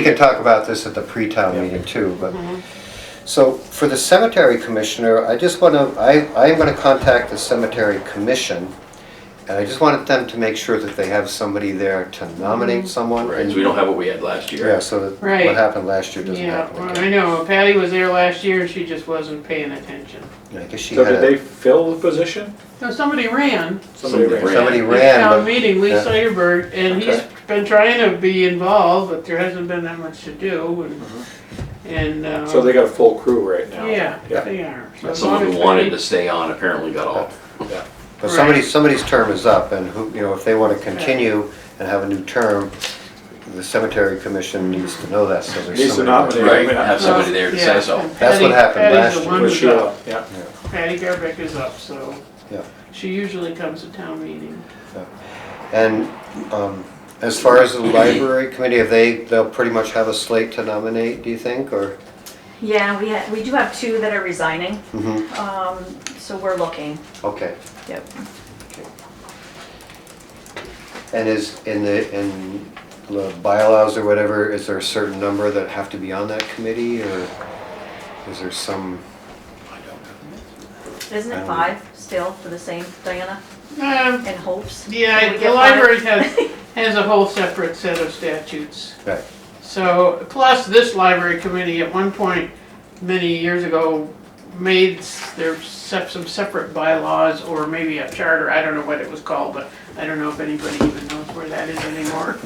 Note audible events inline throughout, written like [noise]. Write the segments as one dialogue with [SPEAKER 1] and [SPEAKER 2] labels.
[SPEAKER 1] We can talk about this at the pre-town meeting too, but,
[SPEAKER 2] Mm-hmm.
[SPEAKER 1] so for the cemetery commissioner, I just want to, I, I am going to contact the cemetery commission. And I just wanted them to make sure that they have somebody there to nominate someone.
[SPEAKER 3] Right, so we don't have what we had last year.
[SPEAKER 1] Yeah, so that
[SPEAKER 2] Mm-hmm. Right.
[SPEAKER 1] what happened last year doesn't
[SPEAKER 2] Yeah,
[SPEAKER 1] happen
[SPEAKER 2] well, I
[SPEAKER 1] again.
[SPEAKER 2] know, Patty was there last year and she just wasn't paying attention.
[SPEAKER 1] I guess she
[SPEAKER 4] So
[SPEAKER 1] had,
[SPEAKER 4] did they
[SPEAKER 1] a-
[SPEAKER 4] fill the position?
[SPEAKER 2] No, somebody ran
[SPEAKER 4] Somebody ran.
[SPEAKER 3] Somebody ran.
[SPEAKER 1] somebody
[SPEAKER 2] at
[SPEAKER 1] ran,
[SPEAKER 2] town
[SPEAKER 1] but
[SPEAKER 2] meeting, Lee
[SPEAKER 1] yeah.
[SPEAKER 2] Snyderberg, and he's
[SPEAKER 4] Okay.
[SPEAKER 2] been trying to be involved, but there hasn't been that much to do
[SPEAKER 1] Mm-hmm.
[SPEAKER 2] and, and, uh.
[SPEAKER 4] So they got a full crew right now?
[SPEAKER 2] Yeah,
[SPEAKER 4] Yeah.
[SPEAKER 2] they are. So
[SPEAKER 3] But
[SPEAKER 2] as
[SPEAKER 3] Someone
[SPEAKER 2] long
[SPEAKER 3] who
[SPEAKER 2] as
[SPEAKER 3] wanted
[SPEAKER 2] they-
[SPEAKER 3] to stay on apparently got off.
[SPEAKER 1] but somebody, somebody's term is up and who, you know, if they want to continue and have a new term, the cemetery commission needs to know that, so there's
[SPEAKER 4] Needs to
[SPEAKER 1] somebody. there.
[SPEAKER 4] nominate.
[SPEAKER 3] Right, have somebody there to say
[SPEAKER 2] Yeah,
[SPEAKER 3] so.
[SPEAKER 2] and
[SPEAKER 1] That's what
[SPEAKER 2] Patty-
[SPEAKER 1] happened
[SPEAKER 2] Patty's
[SPEAKER 1] last
[SPEAKER 2] the
[SPEAKER 1] year.
[SPEAKER 2] one
[SPEAKER 4] With
[SPEAKER 2] who's
[SPEAKER 4] Sheila,
[SPEAKER 2] up.
[SPEAKER 4] yeah.
[SPEAKER 2] Patty Garbeck is up, so.
[SPEAKER 1] Yeah.
[SPEAKER 2] She usually comes to town meeting.
[SPEAKER 1] And um, as far as the library committee, have they, they'll pretty much have a slate to nominate, do you think, or?
[SPEAKER 5] Yeah, we, ha- we do have two that are resigning,
[SPEAKER 1] Mhm,
[SPEAKER 5] um, so we're looking.
[SPEAKER 1] Okay.
[SPEAKER 5] Yep.
[SPEAKER 1] And is, in the, in the bylaws or whatever, is there a certain number that have to be on that committee, or is there some?
[SPEAKER 5] Isn't it
[SPEAKER 1] Um,
[SPEAKER 5] five still for the same, Diana,
[SPEAKER 2] Um,
[SPEAKER 5] and hopes? Can
[SPEAKER 2] yeah,
[SPEAKER 5] we
[SPEAKER 2] the
[SPEAKER 5] get five?
[SPEAKER 2] library has, has a whole separate set of statutes.
[SPEAKER 1] Right,
[SPEAKER 2] So, plus this library committee at one point, many years ago, made s- their, sep- some separate bylaws or maybe a charter, I don't know what it was called, but I don't know if anybody even knows where that is anymore.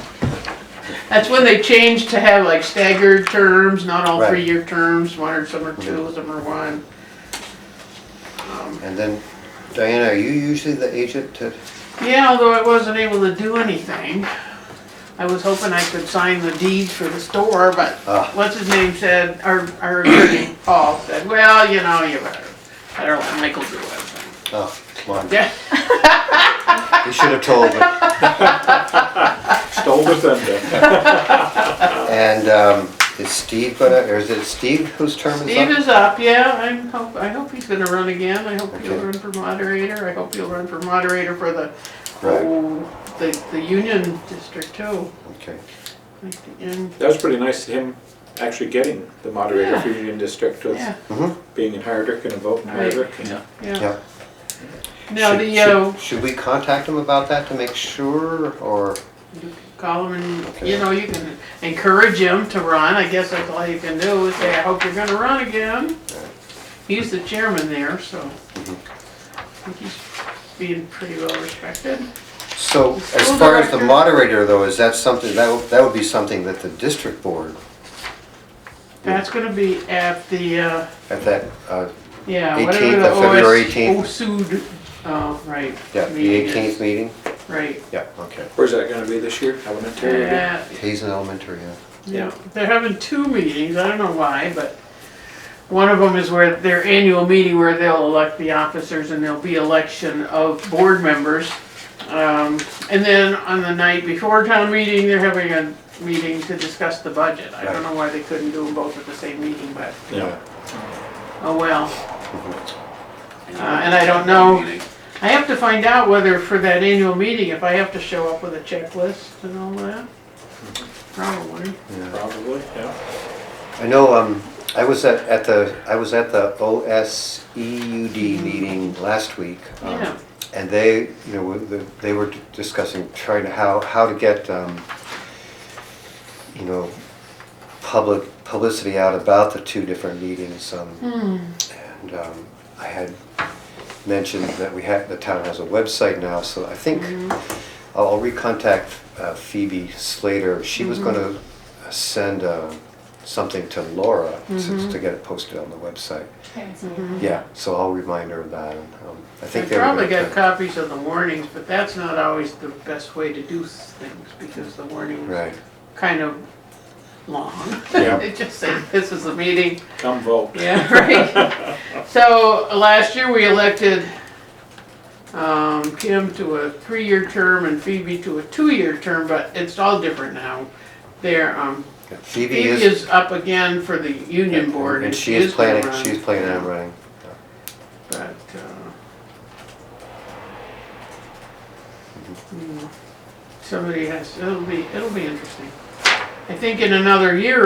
[SPEAKER 2] That's when they changed to have like staggered terms, not all
[SPEAKER 1] Right.
[SPEAKER 2] three-year terms, one or some are two, some are one.
[SPEAKER 1] and then Diana, are you usually the agent to?
[SPEAKER 2] Yeah, although I wasn't able to do anything. I was hoping I could sign the deeds for the store, but
[SPEAKER 1] Ah.
[SPEAKER 2] what's his name said, our, our attorney, Paul, said, well, you know, you better, better let Michael do it.
[SPEAKER 1] Oh, come on,
[SPEAKER 2] Yeah,
[SPEAKER 1] you should have told me.
[SPEAKER 4] Stole the thunder.
[SPEAKER 1] And um, is Steve gonna, or is it Steve whose term is up?
[SPEAKER 2] Steve is up, yeah, I hope, I hope he's gonna run again, I hope he'll
[SPEAKER 1] Okay.
[SPEAKER 2] run for moderator, I hope he'll run for moderator for the,
[SPEAKER 1] Right.
[SPEAKER 2] oh, the, the union district too.
[SPEAKER 1] Okay,
[SPEAKER 2] Like the union-
[SPEAKER 4] That was pretty nice, him actually getting the moderator for Union District with
[SPEAKER 2] Yeah,
[SPEAKER 4] being in Hardwick and a vote in
[SPEAKER 2] Right.
[SPEAKER 4] Hardwick.
[SPEAKER 2] yeah.
[SPEAKER 1] yeah.
[SPEAKER 2] Now,
[SPEAKER 1] Should-
[SPEAKER 2] the,
[SPEAKER 1] should-
[SPEAKER 2] uh,
[SPEAKER 1] Should we contact him about that to make sure, or,
[SPEAKER 2] You Call him and, you know, you can encourage him to run, I guess that's all you can do is say, I hope you're gonna run again. He's the chairman there, so I
[SPEAKER 1] Mm-hmm.
[SPEAKER 2] think he's being pretty well respected.
[SPEAKER 1] so as
[SPEAKER 2] School
[SPEAKER 1] far as the
[SPEAKER 2] director.
[SPEAKER 1] moderator though, is that something, that, would- that would be something that the district board
[SPEAKER 2] That's gonna be at the, uh,
[SPEAKER 1] at that, uh,
[SPEAKER 2] yeah, whatever
[SPEAKER 1] 18th
[SPEAKER 2] the
[SPEAKER 1] of February
[SPEAKER 2] OS
[SPEAKER 1] 18th.
[SPEAKER 2] OSUD, oh, right.
[SPEAKER 1] yeah, the
[SPEAKER 2] meeting is.
[SPEAKER 1] eighteenth meeting?
[SPEAKER 2] Right,
[SPEAKER 1] Yeah, okay.
[SPEAKER 4] Where's that gonna be this year? Elementary? or-
[SPEAKER 2] yeah,
[SPEAKER 1] Hazen Elementary, yeah.
[SPEAKER 2] yeah, they're having two meetings, I don't know why, but One of them is where their annual meeting where they'll elect the officers and there'll be election of board members. Um, and then on the night before town meeting, they're having a meeting to discuss the budget. I don't know why they couldn't do them both at the same meeting, but,
[SPEAKER 4] Yeah.
[SPEAKER 2] oh well.
[SPEAKER 1] Mm-hmm.
[SPEAKER 2] Uh, and I don't know, I have to find out whether for that annual meeting, if I have to show up with a checklist and all that. Probably.
[SPEAKER 4] Probably, yeah.
[SPEAKER 1] I know, um, I was at, at the, I was at the OSEUD meeting last week. um,
[SPEAKER 2] Yeah.
[SPEAKER 1] And they, you know, were- the- they were discussing trying to, how, how to get, um, you know, public, publicity out about the two different meetings. um, And um, I had mentioned that we had, the town has a website now, so I think I'll I'll recontact uh, Phoebe Slater. She was gonna send uh, something to Laura to to get it posted on the website. Yeah, so I'll remind her of that. and, um, I
[SPEAKER 2] I
[SPEAKER 1] think they were
[SPEAKER 2] probably
[SPEAKER 1] gonna-
[SPEAKER 2] got copies of the warnings, but that's not always the best way to do things because the warning is
[SPEAKER 1] Right,
[SPEAKER 2] kind of long. [laughs]
[SPEAKER 4] Yeah.
[SPEAKER 2] It just says, this is the meeting,
[SPEAKER 4] Come vote.
[SPEAKER 2] yeah, [laughs] right. So last year we elected um, Kim to a three-year term and Phoebe to a two-year term, but it's all different now. There, um,
[SPEAKER 1] Yeah, Phoebe
[SPEAKER 2] Phoebe
[SPEAKER 1] is.
[SPEAKER 2] is up again for the union board.
[SPEAKER 1] And she is
[SPEAKER 2] gonna
[SPEAKER 1] planning,
[SPEAKER 2] run.
[SPEAKER 1] she's planning on running.
[SPEAKER 2] But, uh, hmm, somebody has, it'll be, it'll be interesting. I think in another year